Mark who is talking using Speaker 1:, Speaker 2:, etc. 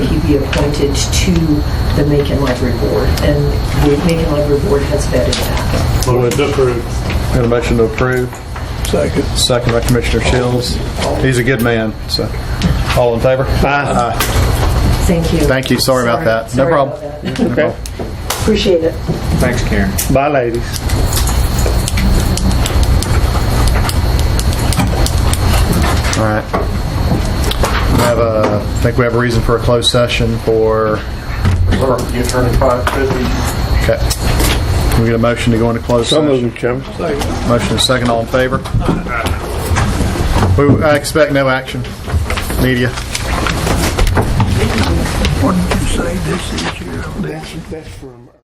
Speaker 1: be appointed to the Macon Library Board, and the Macon Library Board has vetted that.
Speaker 2: Move to approve.
Speaker 3: Got a motion to approve,
Speaker 4: Second.
Speaker 3: second by Commissioner Shields. He's a good man, so. All in favor? Aye.
Speaker 1: Thank you.
Speaker 3: Thank you, sorry about that. No
Speaker 1: Sorry about
Speaker 3: problem.
Speaker 1: that.
Speaker 2: Okay.
Speaker 1: Appreciate it.
Speaker 5: Thanks, Karen.
Speaker 2: Bye, ladies.
Speaker 3: All right. We have a, I think we have a reason for a closed session for,
Speaker 6: The attorney five fifty.
Speaker 3: okay. Can we get a motion to go into closed
Speaker 2: So
Speaker 3: session?
Speaker 2: moved, Chairman.
Speaker 3: Motion is second, all in favor? We, I expect no action. Media.
Speaker 4: What did you say this is your?
Speaker 2: That's, that's from.